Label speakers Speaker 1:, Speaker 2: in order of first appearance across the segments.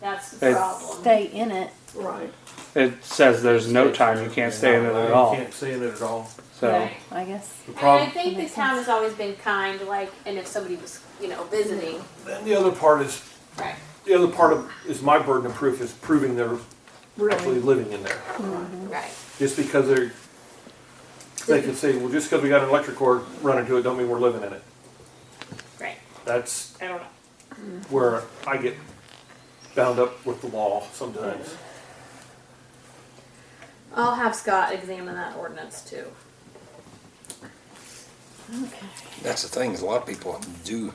Speaker 1: That's the
Speaker 2: Hey.
Speaker 1: problem.
Speaker 3: stay in it.
Speaker 1: Right.
Speaker 2: It says there's no time you can't stay in it at all.
Speaker 4: You can't stay in it at all.
Speaker 2: So
Speaker 1: Right.
Speaker 3: I guess.
Speaker 2: the
Speaker 1: And I
Speaker 2: problem,
Speaker 1: think the
Speaker 3: makes
Speaker 1: town
Speaker 3: sense.
Speaker 1: has always been kind, like, and if somebody was, you know, visiting.
Speaker 4: Then the other part is,
Speaker 1: Right.
Speaker 4: the other part of, is my burden of proof is proving they're actually living in there.
Speaker 1: Right.
Speaker 4: Just because they're, they can say, well, just because we got an electric cord running to it, don't mean we're living in it.
Speaker 1: Right.
Speaker 4: That's
Speaker 1: I don't know.
Speaker 4: where I get bound up with the law sometimes.
Speaker 1: I'll have Scott examine that ordinance too.
Speaker 3: Okay.
Speaker 5: That's the thing, is a lot of people do,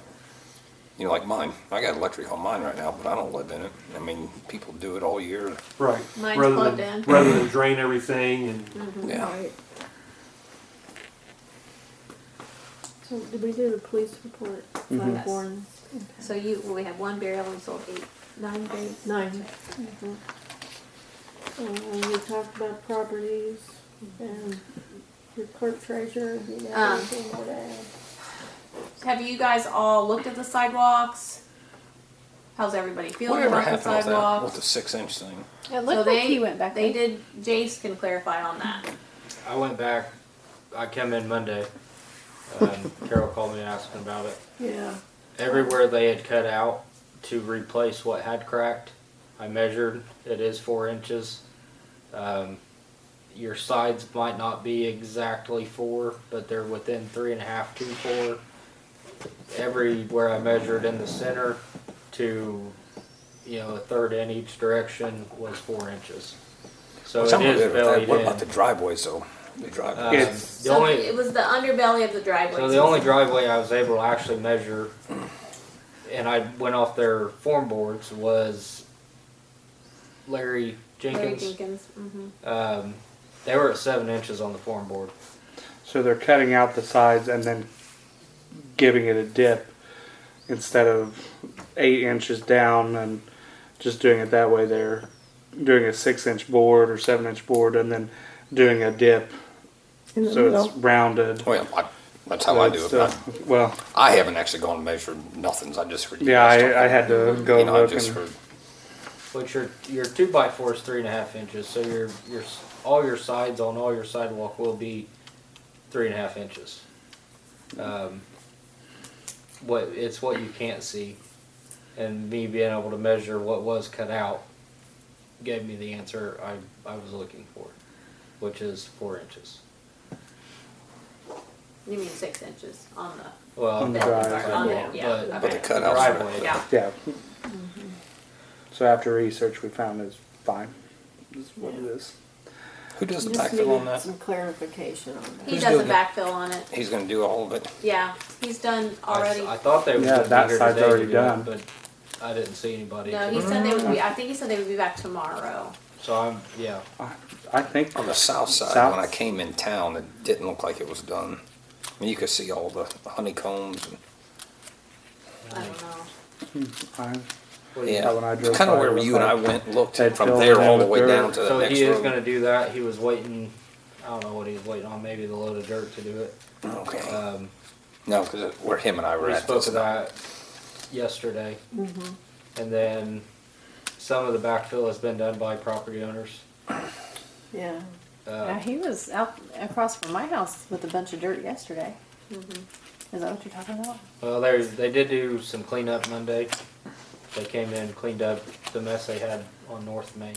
Speaker 5: you know, like mine. I got electric on mine right now, but I don't live in it. I mean, people do it all year.
Speaker 4: Right.
Speaker 1: Mine's
Speaker 4: Rather
Speaker 1: plugged
Speaker 4: than-
Speaker 1: in.
Speaker 4: Rather than drain everything and,
Speaker 3: Mm-hmm.
Speaker 5: Yeah.
Speaker 3: So did we do the police report?
Speaker 2: Mhm.
Speaker 1: Yes.
Speaker 3: Warrants?
Speaker 1: So you, well, we have one burial and sold eight, nine graves.
Speaker 3: Nine. Uh, we talked about properties and your clerk treasurer, you know,
Speaker 1: Um.
Speaker 3: anything more to add?
Speaker 1: Have you guys all looked at the sidewalks? How's everybody feeling
Speaker 5: Whatever
Speaker 1: about the
Speaker 5: happened with that, with the
Speaker 1: sidewalks?
Speaker 5: six inch thing?
Speaker 3: It
Speaker 1: So
Speaker 3: looked
Speaker 1: they
Speaker 3: like he went back.
Speaker 1: They
Speaker 3: there.
Speaker 1: did. Jace can clarify on that.
Speaker 6: I went back. I come in Monday. Um, Carol called me asking about it.
Speaker 3: Yeah.
Speaker 6: Everywhere they had cut out to replace what had cracked, I measured. It is four inches. Um, your sides might not be exactly four, but they're within three and a half to four. Everywhere I measured in the center to, you know, a third in each direction was four inches. So
Speaker 5: Something
Speaker 6: it
Speaker 5: with
Speaker 6: is
Speaker 5: that.
Speaker 6: bellied
Speaker 5: What
Speaker 6: in.
Speaker 5: about the driveways though? The driveway.
Speaker 6: Um,
Speaker 2: It's-
Speaker 6: the
Speaker 1: so
Speaker 6: only,
Speaker 1: it was the underbelly of the driveway.
Speaker 6: So the only driveway I was able to actually measure, and I went off their form boards, was Larry
Speaker 1: Larry
Speaker 6: Jenkins.
Speaker 1: Jenkins. hmm
Speaker 6: Um, they were at seven inches on the form board.
Speaker 2: so they're cutting out the sides and then giving it a dip instead of eight inches down and just doing it that way. They're doing a six inch board or seven inch board and then doing a dip so it's rounded.
Speaker 5: Well, Oh, I, that's how I do it.
Speaker 2: So
Speaker 5: I,
Speaker 2: it's, uh, well,
Speaker 5: I haven't actually gone and measured nothings. I just heard. you
Speaker 2: yeah,
Speaker 5: guys talking.
Speaker 2: I, I had to go
Speaker 5: You know, I
Speaker 2: look
Speaker 5: just
Speaker 2: and
Speaker 5: heard.
Speaker 6: But your your two by four is three and a half inches, so your your s- all your sides on all your sidewalk will be three and a half inches. Um, what it's what you can't see, and me being able to measure what was cut out gave me the answer I I was looking for, which is four inches.
Speaker 1: You mean six inches on the
Speaker 6: Well,
Speaker 2: On the
Speaker 6: not
Speaker 2: drive.
Speaker 6: sidewalk,
Speaker 1: Yeah. Yeah.
Speaker 6: but
Speaker 5: But the
Speaker 1: Okay.
Speaker 5: cutouts. are-
Speaker 6: driveway.
Speaker 1: yeah.
Speaker 2: yeah. So after research, we found it's fine. That's what it is.
Speaker 5: Who does the
Speaker 7: Just
Speaker 5: backfill on
Speaker 7: needed
Speaker 5: that?
Speaker 7: some clarification on that.
Speaker 1: He
Speaker 5: Who's
Speaker 1: does a
Speaker 5: doing it?
Speaker 1: backfill on it.
Speaker 5: He's going to do all of it.
Speaker 1: Yeah, he's done
Speaker 6: I, s-
Speaker 1: already.
Speaker 6: I thought they was
Speaker 2: Yeah,
Speaker 6: gonna be
Speaker 2: that
Speaker 6: here
Speaker 2: side's
Speaker 6: today to
Speaker 2: already
Speaker 6: do it,
Speaker 2: done.
Speaker 6: but I didn't see anybody.
Speaker 1: no,
Speaker 6: to-
Speaker 1: he said they would be. I think he said they would be back tomorrow.
Speaker 6: so I'm yeah.
Speaker 2: I, I think
Speaker 5: On the south side,
Speaker 2: South?
Speaker 5: when I came in town, it didn't look like it was done. I mean, you could see all the honeycombs. And,
Speaker 1: I don't know.
Speaker 2: I,
Speaker 6: What do you-
Speaker 5: yeah,
Speaker 2: when I drove
Speaker 5: it's kind
Speaker 2: by,
Speaker 5: of
Speaker 2: it
Speaker 5: where
Speaker 2: looked
Speaker 5: you and I
Speaker 2: like
Speaker 5: went and looked
Speaker 2: they'd
Speaker 5: from
Speaker 2: filled
Speaker 5: there
Speaker 2: it in
Speaker 5: all the
Speaker 2: with dirt.
Speaker 5: way down to the
Speaker 6: So
Speaker 5: next
Speaker 6: he is
Speaker 5: road.
Speaker 6: going to do that. He was waiting. I don't know what he was waiting on. Maybe the load of dirt to do it.
Speaker 5: okay.
Speaker 6: Um,
Speaker 5: no, because where him and I were
Speaker 6: we
Speaker 5: at.
Speaker 6: spoke
Speaker 5: that's
Speaker 6: to
Speaker 5: about-
Speaker 6: that yesterday, and then some of the backfill has been done by property owners.
Speaker 7: Yeah.
Speaker 3: Yeah,
Speaker 6: Uh,
Speaker 3: he was out across from my house with a bunch of dirt yesterday. Is that what you're talking about?
Speaker 6: well, there's they did do some cleanup Monday. They came in cleaned up the mess they had on North Main,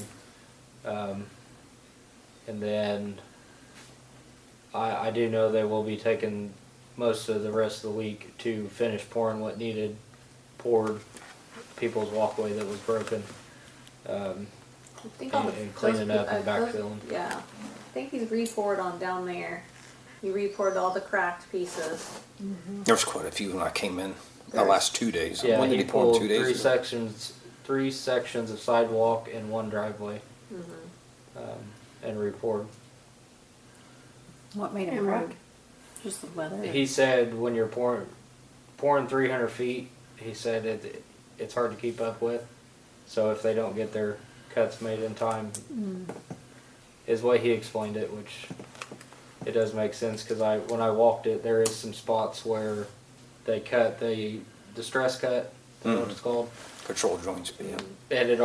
Speaker 6: um, and then I, I do know they will be taking most of the rest of the week to finish pouring what needed poured people's walkway that was broken. Um,
Speaker 1: I think all
Speaker 6: And-
Speaker 1: the
Speaker 6: and cleaning
Speaker 1: those-
Speaker 6: up and
Speaker 1: uh, those-
Speaker 6: backfilling.
Speaker 1: Yeah, I think he's re-poured on down there. He re-poured all the cracked pieces.
Speaker 5: There was quite a few when I came in the last two days.
Speaker 6: yeah,
Speaker 5: when did
Speaker 6: he,
Speaker 5: he pour
Speaker 6: pulled
Speaker 5: them? Two
Speaker 6: three
Speaker 5: days ago?
Speaker 6: sections, three sections of sidewalk and one driveway, um, and repoured.
Speaker 3: What made him
Speaker 7: And
Speaker 3: crack?
Speaker 7: road.
Speaker 3: Just the weather.
Speaker 6: He said when you're pouring, pouring 300 feet, he said it, it's hard to keep up with. So if they don't get their cuts made in time, is what he explained it, which it does make sense because I when I walked it, there is some spots where they cut the distress cut, is what it's called,
Speaker 5: Patrol joints. Yeah.
Speaker 6: and it